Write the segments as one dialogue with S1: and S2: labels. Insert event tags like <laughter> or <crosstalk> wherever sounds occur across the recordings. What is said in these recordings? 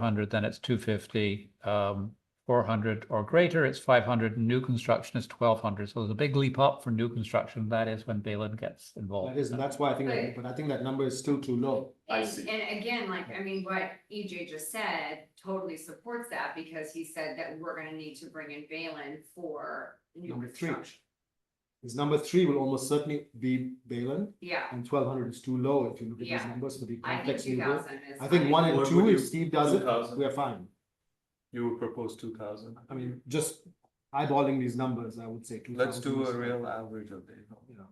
S1: hundred, then it's two fifty. Um, four hundred or greater, it's five hundred, and new construction is twelve hundred. So there's a big leap up for new construction. That is when Balin gets involved.
S2: That is, and that's why I think, that- but I think that number is still too low.
S3: I
S4: And,
S3: see.
S4: and again, like, I mean, what EJ just said totally supports that because he said that we're gonna need to bring in Balin for new
S2: Number three.
S4: construction.
S2: Because number three will almost certainly be Balin,
S4: Yeah,
S2: and twelve hundred is too low if you look at these
S4: Yeah.
S2: numbers for the
S4: I think
S2: complex
S4: two
S2: new build.
S4: thousand is.
S2: I think
S4: fine.
S2: one and
S3: What
S2: two,
S3: would
S2: if
S3: you-
S2: Steve does it,
S3: 2,000?
S2: we are fine.
S3: You would propose two thousand?
S2: I mean, just eyeballing these numbers, I would say two thousand.
S3: Let's do a real average of it.
S2: You know.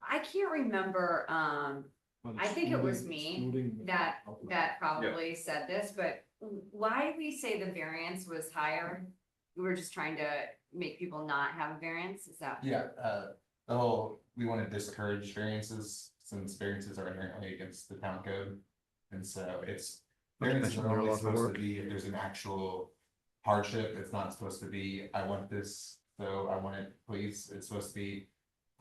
S4: I can't remember, um,
S2: well,
S4: I think it was
S2: excluding-
S4: me
S2: excluding the
S4: that-
S2: outlier.
S4: that probably said this, but why did we say the variance was higher? We were just trying to make people not have a variance, is that?
S5: Yeah, uh, oh, we wanna discourage variances, since variances are inherently against the town code. And so it's,
S1: Not to
S5: variances
S1: mention
S5: are
S1: they're a
S5: only
S1: lot of
S5: supposed
S1: work.
S5: to be if there's an actual hardship, it's not supposed to be, I want this, so I want it, please, it's supposed to be.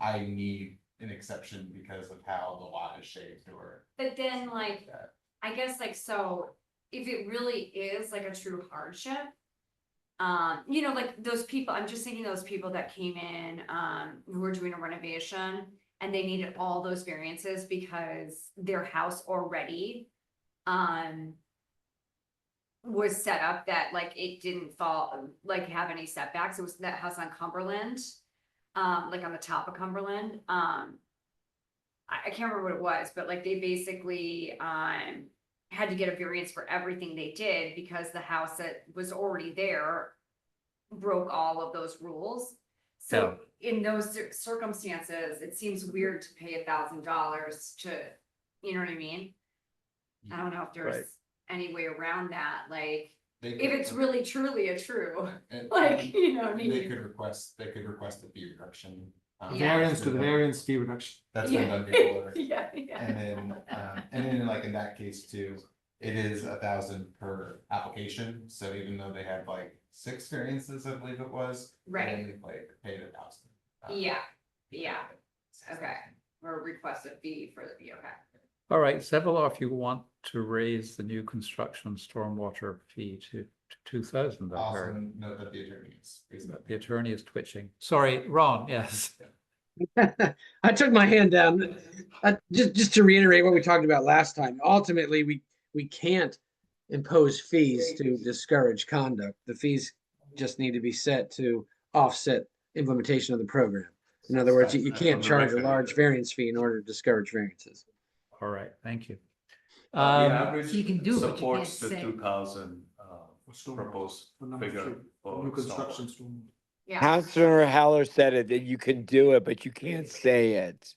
S5: I need an exception because of how the lot is shaped or.
S4: But then like,
S5: Yeah.
S4: I guess like, so if it really is like a true hardship. Um, you know, like those people, I'm just thinking those people that came in, um, who were doing a renovation. And they needed all those variances because their house already, um. Was set up that like it didn't fall, like have any setbacks, it was that house on Cumberland. Um, like on the top of Cumberland, um, I, I can't remember what it was, but like they basically, um, had to get a variance for everything they did because the house that was already there broke all of those rules. So in those cir- circumstances, it seems weird to pay a thousand dollars to, you know what I mean? I don't know if
S1: Right.
S4: there's any way around that, like,
S5: They
S4: if
S5: could-
S4: it's really truly a true, <laughs>
S5: and-
S4: like, you know what I
S5: They
S4: mean?
S5: could request, they could request a fee reduction. um,
S4: Yeah.
S2: Variance to the variance fee reduction.
S5: That's been
S6: <laughs>
S5: done before.
S4: <laughs> Yeah, yeah.
S5: And then, um, and then like in that case too, it is a thousand per application, so even though they had like six variances, I believe it was.
S4: Right,
S5: They like paid a thousand.
S2: Um,
S4: yeah, yeah, okay, or request a fee for the, okay.
S1: All right, several of you want to raise the new construction stormwater fee to, to two thousand, I
S5: Also
S1: heard.
S5: note that the attorney is. is-
S1: But The attorney is twitching. Sorry, Ron, yes.
S7: <laughs> I took my hand down. Uh, just, just to reiterate what we talked about last time, ultimately, we, we can't impose fees to discourage conduct. The fees just need to be set to offset implementation of the program. In other words, you, you can't charge a large variance fee in order to discourage variances.
S1: All right, thank you.
S2: Uh,
S3: The
S1: Um,
S3: average
S6: you can do, but you
S3: Supports the
S6: can't say-
S3: two thousand, uh,
S2: For stormwater,
S3: proposed
S2: for number
S3: figure.
S2: three,
S3: for
S2: New construction
S3: stormwater.
S2: stormwater.
S4: Yeah,
S8: Councilor Heller said it, that you can do it, but you can't say it.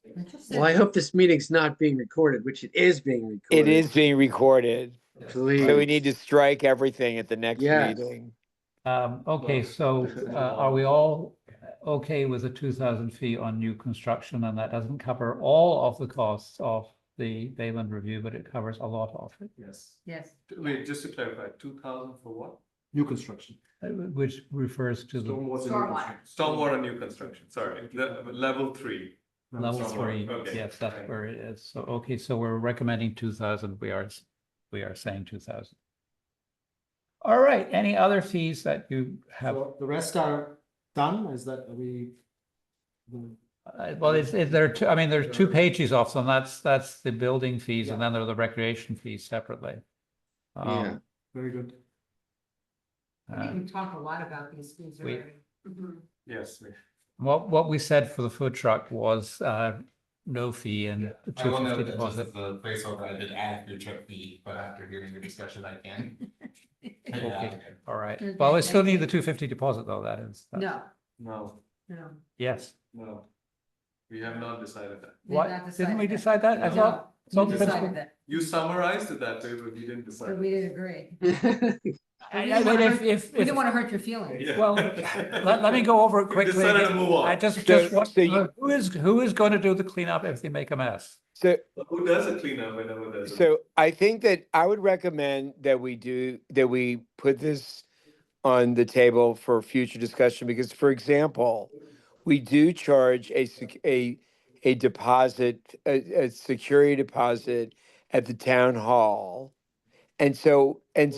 S7: Well, I hope this meeting's not being recorded, which it is being
S8: It
S7: recorded.
S8: is being recorded, so we
S7: Please.
S8: need to strike everything at the next
S7: Yes.
S8: meeting.
S1: um, okay, so uh, are we all okay with a two thousand fee on new construction? And that doesn't cover all of the costs of the Bayland review, but it covers a lot of it.
S2: Yes,
S6: Yes,
S3: Wait, just to clarify, two thousand for what?
S2: new construction.
S1: uh, Which refers to the
S2: Stormwater. new
S4: Stormwater.
S2: construction.
S3: Stormwater new construction, sorry, the level three.
S2: No,
S1: level
S3: Somewhere,
S1: three.
S3: okay.
S1: Yes, that's where it is. So, okay, so we're recommending two thousand. We are, s- we are saying two thousand. All right, any other fees that you have?
S2: So The rest are done, is that, are we? the-
S1: Uh, Well, it's, it- there are two, I mean, there's two pages off, and that's, that's the building fees, and then there are the recreation fees separately. Um,
S2: Very good.
S6: I think
S1: uh,
S6: we talk a lot about these things
S1: we-
S6: already.
S4: mhm.
S3: Yes, we-
S1: What, what we said for the food truck was, uh, no fee and the
S5: I
S1: two
S5: will
S1: fifty
S5: note that this is
S1: deposit.
S5: the placeholder I did add your trip fee, but after hearing your discussion, I can. take it out
S1: Okay.
S5: again.
S1: All right,
S6: Okay,
S1: well, we still
S6: thank
S1: need the
S6: you.
S1: two fifty deposit, though, that is. that's-
S6: No,
S3: no,
S6: no.
S1: Yes,
S3: no, we have not decided that.
S6: they've
S1: What-
S6: not
S1: didn't we
S6: decided
S1: decide that? I
S3: No.
S1: thought,
S6: that. We
S1: Some
S6: decided
S1: principle-
S6: that,
S3: You summarized it that way, but you didn't
S6: but
S3: decide.
S6: we didn't agree.
S8: Um,
S7: <laughs> Yeah.
S6: We
S1: I-
S6: didn't
S1: I mean,
S6: wanna
S1: if,
S6: hurt-
S1: if,
S6: We didn't
S1: if-
S6: want to hurt your feelings.
S1: <laughs>
S3: Yeah.
S1: well, let, let me go over it
S3: <laughs> We
S1: quickly.
S3: decided to
S1: again.
S3: move
S1: I
S3: on.
S1: just,
S8: So-
S1: just want,
S8: so you-
S1: who is, who is going to do the cleanup if they make a mess?
S8: So,
S3: Who does a cleanup whenever there's a?
S8: so I think that I would recommend that we do, that we put this on the table for future discussion, because for example, we do charge a, sec- a, a deposit, a, a security deposit at the town hall. And so, and